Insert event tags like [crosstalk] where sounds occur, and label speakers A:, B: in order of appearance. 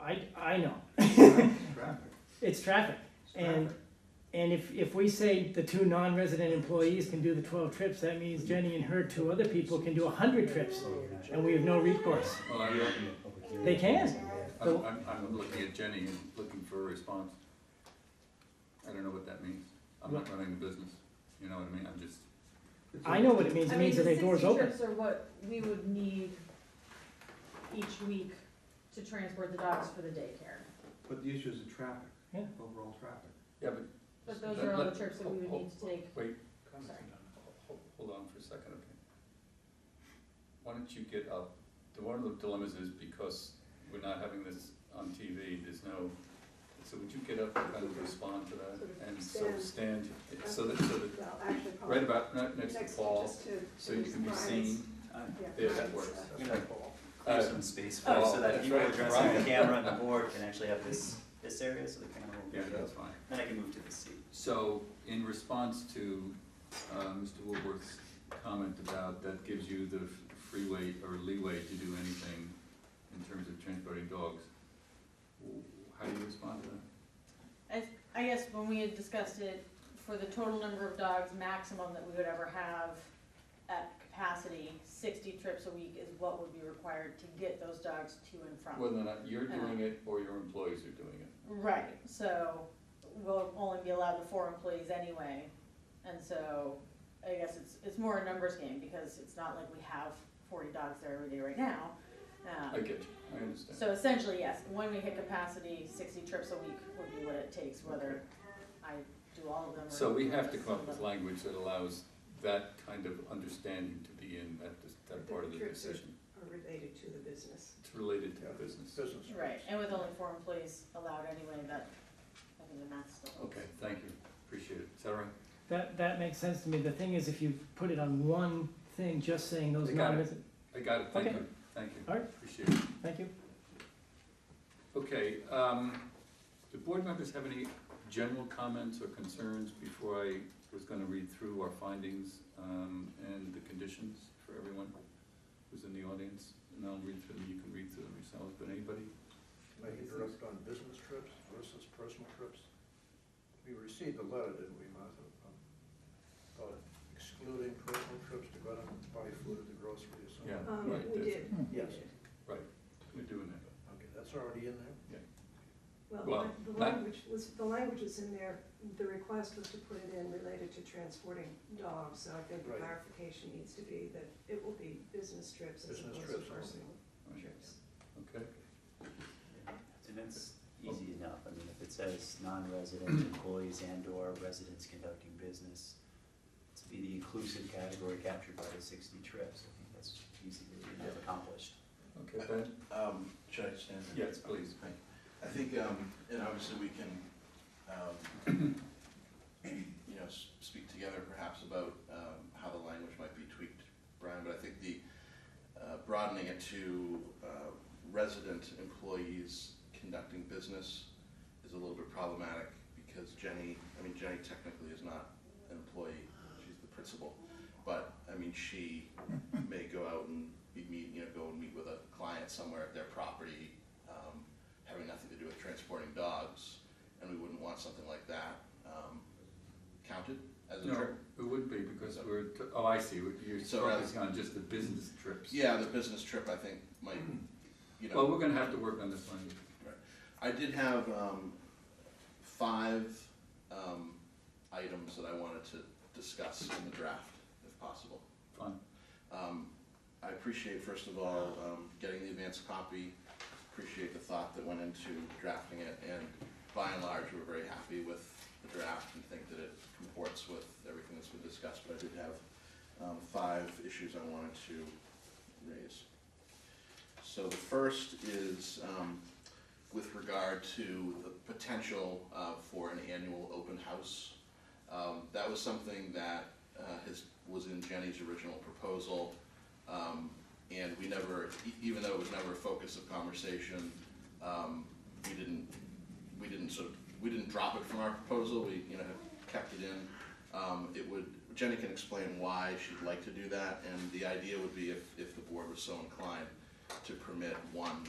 A: I, I know,
B: Traffic.
A: it's traffic.
B: It's
A: And,
B: traffic.
A: and if, if we say the two non-resident employees can do the twelve trips, that means Jenny and her two other people can do a hundred trips. And we have no recourse.
B: Well, I'm,
A: They can.
B: I'm, I'm, I'm looking at Jenny and looking for a response. I don't know what that means. I'm not running the business, you know what I mean? I'm just.
A: I know what it means. It means that their door's
C: I mean,
A: open.
C: the sixty trips are what we would need each week to transport the dogs for the daycare.
D: But the issue is the traffic.
A: Yeah.
D: Overall traffic.
B: Yeah, but.
C: But those are all the trips that we would need to take.
B: Wait.
C: Sorry.
B: Hold- Hold on for a second, okay? Why don't you get up? The one of the dilemmas is because we're not having this on TV, there's no, so would you get up and kind of respond to that? And so stand, so that, so that,
E: Well, actually, probably
B: right about, not next to
E: next to
B: Paul,
E: just to-
B: so you can be
E: Right.
B: seen.
E: Yeah.
B: There, that works.
F: You know,
B: Uh,
F: clear some space for it
B: oh,
F: so that
B: that's
F: people
B: right,
F: addressing
B: right.
F: the camera and the board can actually have this, this area so the camera will
B: Yeah,
F: be,
B: that's fine.
F: then I can move to this seat.
B: So, in response to, uh, Mr. Woolworth's comment about that gives you the freeway or leeway to do anything in terms of transporting dogs, w- how do you respond to that?
C: I guess when we had discussed it, for the total number of dogs maximum that we would ever have at capacity, sixty trips a week is what would be required to get those dogs to and from.
B: Whether or not
A: Uh,
B: you're doing it or your employees are doing it.
C: Right, so we'll only be allowed the four employees anyway, and so I guess it's, it's more a numbers game, because it's not like we have forty dogs there every day right now. Um,
B: I get you, I understand.
C: So essentially, yes, when we hit capacity, sixty trips a week would be what it takes, whether I do all of them or.
B: So we have to
C: some
B: come up
C: of
B: with
C: them.
B: language that allows that kind of understanding to be in that, dis- that part of the decision.
E: Are related to the business.
B: It's related to the business.
C: Right, and with only four employees allowed anyway, that, I think the math still holds.
B: Okay, thank you, appreciate it. Is that all right?
A: That, that makes sense to me. The thing is, if you put it on one thing, just saying those
B: I got it.
A: non-resident,
B: I got it, thank
A: Okay.
B: you, thank you.
A: All right.
B: Appreciate it.
A: thank you.
B: Okay, um, do board members have any general comments or concerns before I was gonna read through our findings, um, and the conditions for everyone who's in the audience? And I'll read through them, you can read through them yourselves, but anybody?
G: May I interrupt on business trips versus personal trips? We received a letter, didn't we, Martha? um, About excluding personal trips to go out and buy food at the grocery or something?
B: Yeah.
E: Um,
B: Right,
E: we
B: that's-
E: did, we
G: Yes.
E: did.
B: We're doing that.
G: Okay, that's already in there?
B: Well,
E: Well, the-
B: that-
E: the language was, the language was in there, the request was to put it in related to transporting dogs, so I think the
G: Right.
E: clarification needs to be that it will be business trips as
G: Business
E: opposed to
G: trips only.
E: personal
B: Right.
E: trips.
B: Okay,
F: And that's easy enough, I mean, if it says
B: [clears throat]
F: non-resident employees and/or residents conducting business, to be the inclusive category captured by the sixty trips, I think that's easily enough accomplished.
B: okay, Ben?
H: Um, should I stand? there?
B: Yes, please.
H: I think, um, and obviously we can, um, you know, s- speak together perhaps about, um, how the language might be tweaked, Brian, but I think the, uh, broadening it to, uh, resident employees conducting business is a little bit problematic because Jenny, I mean, Jenny technically is not an employee, she's the principal. But, I mean, she may go out and be meet, you know, go and meet with a client somewhere at their property, um, having nothing to do with transporting dogs, and we wouldn't want something like that, um, counted as a
B: No,
H: trip.
B: it would be, because we're, t- oh, I see, We're- you're
H: So rather-
B: focusing on just the business trips.
H: Yeah, the business trip, I think, might, you know.
B: Well, we're gonna have to work on this one.
H: I did have um, five um, items that I wanted to discuss in the draft, if possible.
B: Fine.
H: Um, I appreciate, first of all, um, getting the advance copy, appreciate the thought that went into drafting it, and by and large, we're very happy with the draft and think that it comports with everything that's been discussed, but I did have um, five issues I wanted to raise. So the first is um, with regard to the potential uh, for an annual open house. Um, That was something that uh, has, was in Jenny's original proposal. Um, And we never, e- even though it was never a focus of conversation, um, we didn't, we didn't sort of, we didn't drop it from our proposal, we, you know, kept it in. Um, It would, Jenny can explain why she'd like to do that, and the idea would be if, if the board was so inclined to permit one